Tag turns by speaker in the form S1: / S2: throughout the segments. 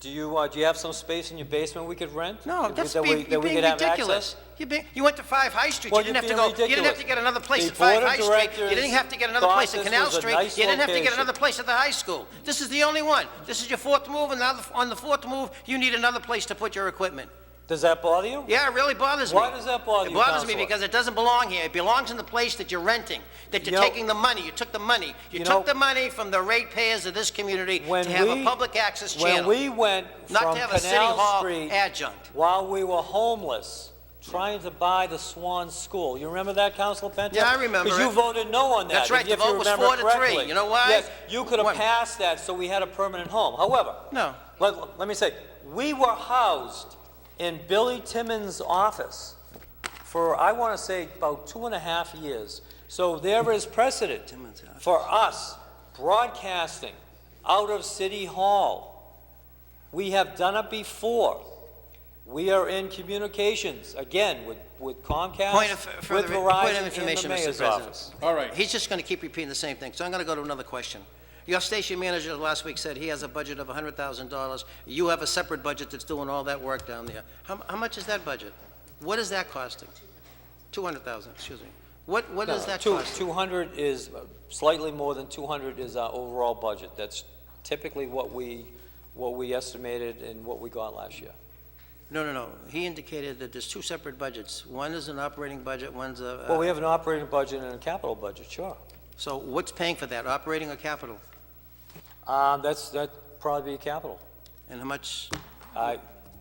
S1: Do you, uh, do you have some space in your basement we could rent?
S2: No,
S1: That
S2: that's
S1: we-
S2: being,
S1: that
S2: you're
S1: we
S2: being
S1: could have
S2: ridiculous.
S1: access?
S2: You being, you went to Five High Street,
S1: Well,
S2: you didn't
S1: you're
S2: have to
S1: being
S2: go, you didn't have
S1: ridiculous.
S2: to get another place
S1: The
S2: at Five
S1: board of
S2: High Street, you didn't
S1: directors
S2: have to get another place at
S1: thought
S2: Canal
S1: this was a
S2: Street,
S1: nice
S2: you didn't have to get
S1: location.
S2: another place at the high school. This is the only one. This is your fourth move, and now the- on the fourth move, you need another place to put your equipment.
S1: Does that bother you?
S2: Yeah, it really bothers me.
S1: Why does that bother you,
S2: It bothers me
S1: Counselor?
S2: because it doesn't belong here. It belongs in the place that you're renting, that you're
S1: You know-
S2: taking the money. You took the money. You
S1: You
S2: took
S1: know-
S2: the money from the ratepayers of this community
S1: When
S2: to have a
S1: we-
S2: public access
S1: When
S2: channel.
S1: we went
S2: Not to
S1: from
S2: have a city
S1: Canal
S2: hall
S1: Street...
S2: adjunct.
S1: While we were homeless, trying to buy the Swan School. You remember that, Councilor Penta?
S2: Yeah, I remember
S1: Because you
S2: it.
S1: voted no on that.
S2: That's right,
S1: if-
S2: the
S1: if you
S2: vote was
S1: remember
S2: four to three.
S1: correctly.
S2: You know why?
S1: Yes, you could
S2: One-
S1: have passed that, so we had a permanent home. However...
S2: No.
S1: Let, let me say, we were housed in Billy Timmons' office for, I want to say, about two and a half years. So there is precedent for us broadcasting out of City Hall. We have done it before. We are in communications, again, with with
S2: Point of-
S1: Comcast,
S2: further-
S1: with
S2: point of
S1: Verizon, and the
S2: information, Mr.
S1: mayor's
S2: President.
S1: office.
S3: All right.
S2: He's just going to keep repeating the same thing, so I'm going to go to another question. Your station manager last week said he has a budget of $100,000. You have a separate budget that's doing all that work down there. How, how much is that budget? What is that costing? 200,000, excuse me. What, what
S1: No,
S2: is that
S1: two-
S2: costing?
S1: 200 is, uh, slightly more than 200 is our overall budget. That's typically what we, what we estimated and what we got last year.
S2: No, no, no. He indicated that there's two separate budgets. One is an operating budget, one's a, uh,
S1: Well, we have an operating budget and a capital budget, sure.
S2: so what's paying for that, operating or capital?
S1: Um, That's, that'd probably be capital.
S2: And how much,
S1: I,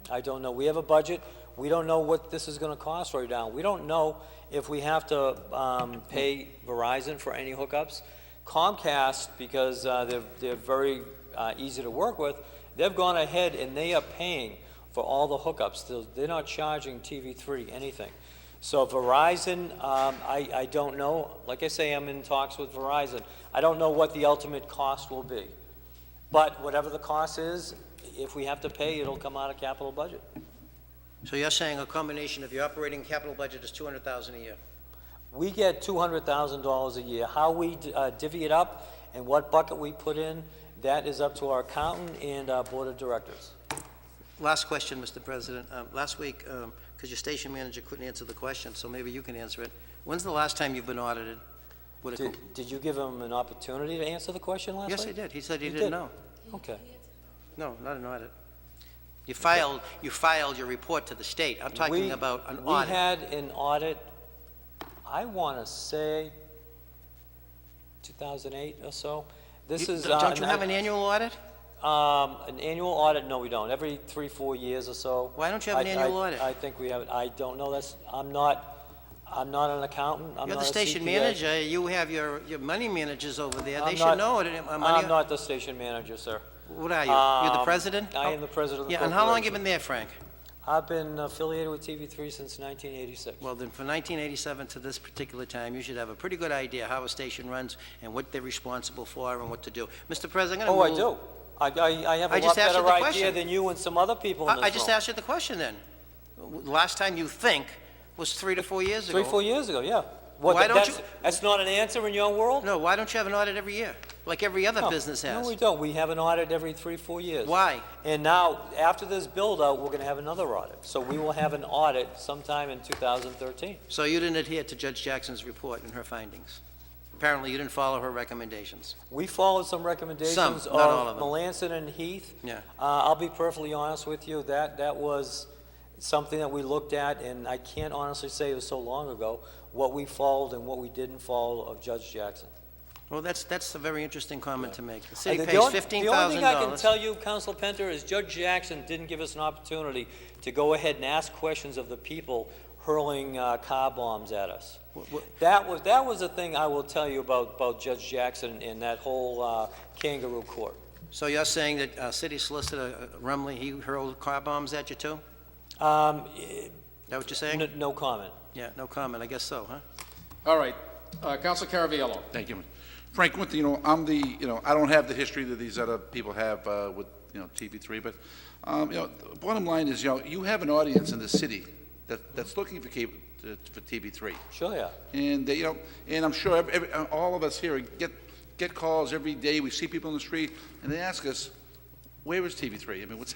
S1: I don't know. We have a budget. We don't know what this is going to cost right now. We don't know if we have to um, pay Verizon for any hookups. Comcast, because uh, they're, they're very uh, easy to work with, they've gone ahead and they are paying for all the hookups. They're- They're not charging TV3 anything. So Verizon, um, I, I don't know. Like I say, I'm in talks with Verizon. I don't know what the ultimate cost will be. But whatever the cost is, if we have to pay, it'll come out of capital budget.
S2: so you're saying a combination of your operating and capital budget is 200,000 a year?
S1: We get $200,000 a year. How we uh, divvy it up and what bucket we put in, that is up to our accountant and our board of directors.
S2: Last question, Mr. President. Um, Last week, because your station manager couldn't answer the question, so maybe you can answer it. When's the last time you've been audited? Would it-
S1: Did did you give him an opportunity to answer the question last
S2: Yes, I
S1: night?
S2: did. He said he
S1: You
S2: didn't
S1: did.
S2: know.
S1: Okay.
S2: No, not an audit. You filed, you filed your report to the state. I'm
S1: We-
S2: talking about an
S1: We
S2: audit.
S1: had an audit, I want to say 2008 or so. This
S2: You-
S1: is. uh,
S2: Don't you have an annual audit?
S1: Um, an annual audit, no, we don't. Every three, four years or so.
S2: Why don't you have an
S1: I- I-
S2: annual audit?
S1: I think we have, it. I don't know, that's, I'm not, I'm not an accountant, I'm not a
S2: You're the station
S1: CPA.
S2: manager, you have your, your money managers over there. They
S1: I'm
S2: should
S1: not-
S2: know it. Uh, money-
S1: I'm not the station manager, sir.
S2: What are you? You're the
S1: Um,
S2: president?
S1: I am the president of the
S2: Yeah, and how long you
S1: corporation.
S2: been there, Frank?
S1: I've been affiliated with TV3 since 1986.
S2: Well, then, from 1987 to this particular time, you should have a pretty good idea how a station runs and what they're responsible for and what to do. Mr. President, I'm
S1: Oh, I
S2: going to move...
S1: do. I, I, I have
S2: I
S1: a
S2: just
S1: lot
S2: asked you
S1: better
S2: the
S1: idea
S2: question.
S1: than you and some other people in this room.
S2: I just asked you the question, then. W- Last time you think was three to four years ago.
S1: Three, four years ago, yeah. What,
S2: Why don't
S1: that's-
S2: you-
S1: That's not an answer in your world?
S2: No, why don't you have an audit every year, like every other
S1: No.
S2: business
S1: Oh, No, we
S2: has?
S1: don't. We have an audit every three, four years.
S2: Why?
S1: And now, after this build-out, we're going to have another audit. So we will have an audit sometime in 2013.
S2: So you didn't adhere to Judge Jackson's report and her findings. Apparently, you didn't follow her recommendations.
S1: We followed some recommendations
S2: Some,
S1: of
S2: not all of them.
S1: Melanson and Heath.
S2: Yeah.
S1: Uh, I'll be perfectly honest with you, that, that was something that we looked at, and I can't honestly say it was so long ago, what we followed and what we didn't follow of Judge Jackson.
S2: Well, that's, that's a very interesting comment to make. The
S1: I
S2: city
S1: think
S2: pays
S1: the only-
S2: $15,000.
S1: The only thing I can tell you, Council Penter, is Judge Jackson didn't give us an opportunity to go ahead and ask questions of the people hurling uh, car bombs at us.
S2: Wh- wh-
S1: That was, that was the thing I will tell you about, about Judge Jackson and that whole uh, kangaroo court.
S2: So you're saying that uh, city solicitor uh, Rumley, he hurled car bombs at you, too?
S1: Um, eh,
S2: Is that what you're saying?
S1: n- No comment.
S2: Yeah, no comment, I guess so, huh?
S3: All right. Uh, Counselor Caraviallo.
S4: Thank you. Frank, one thing, you know, I'm the, you know, I don't have the history that these other people have uh, with, you know, TV3, but, um, you know, the bottom line is, you know, you have an audience in the city that, that's looking for cable, uh, for TV3.
S1: Sure, yeah.
S4: And they, you know, and I'm sure every, every, uh, all of us here get, get calls every day. We see people in the street, and they ask us, where is TV3? I mean, what's